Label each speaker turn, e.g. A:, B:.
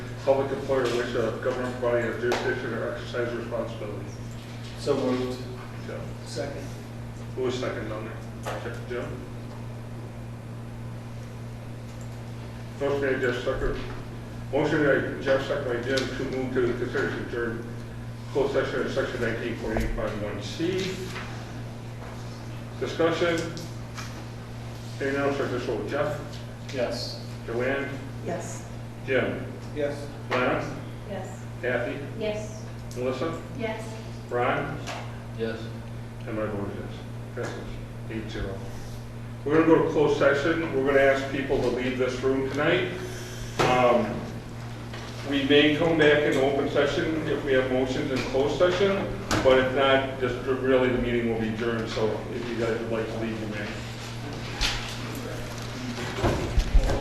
A: public employer in which a government body has jurisdiction or exercise responsibility.
B: So moved.
A: Joe,
B: Second.
A: who was second on there? Joe? Motion made Jeff Sucker. Motion by Jeff Sucker by Jim to move to consider to adjourn closed session in section nineteen forty-eight five one C. Discussion. Hearing none, start this over. Jeff,
B: Yes.
A: Joanne,
C: Yes.
A: Jim,
B: Yes.
A: Lana,
C: Yes.
A: Kathy,
C: Yes.
A: Melissa,
C: Yes.
A: Ron,
D: Yes.
A: and my vote is yes. Passes eight zero. We're gonna go to closed session. We're gonna ask people to leave this room tonight. Um, We may come back in open session if we have motions in closed session, but if not, just really the meeting will be adjourned, so if you guys would like to leave, you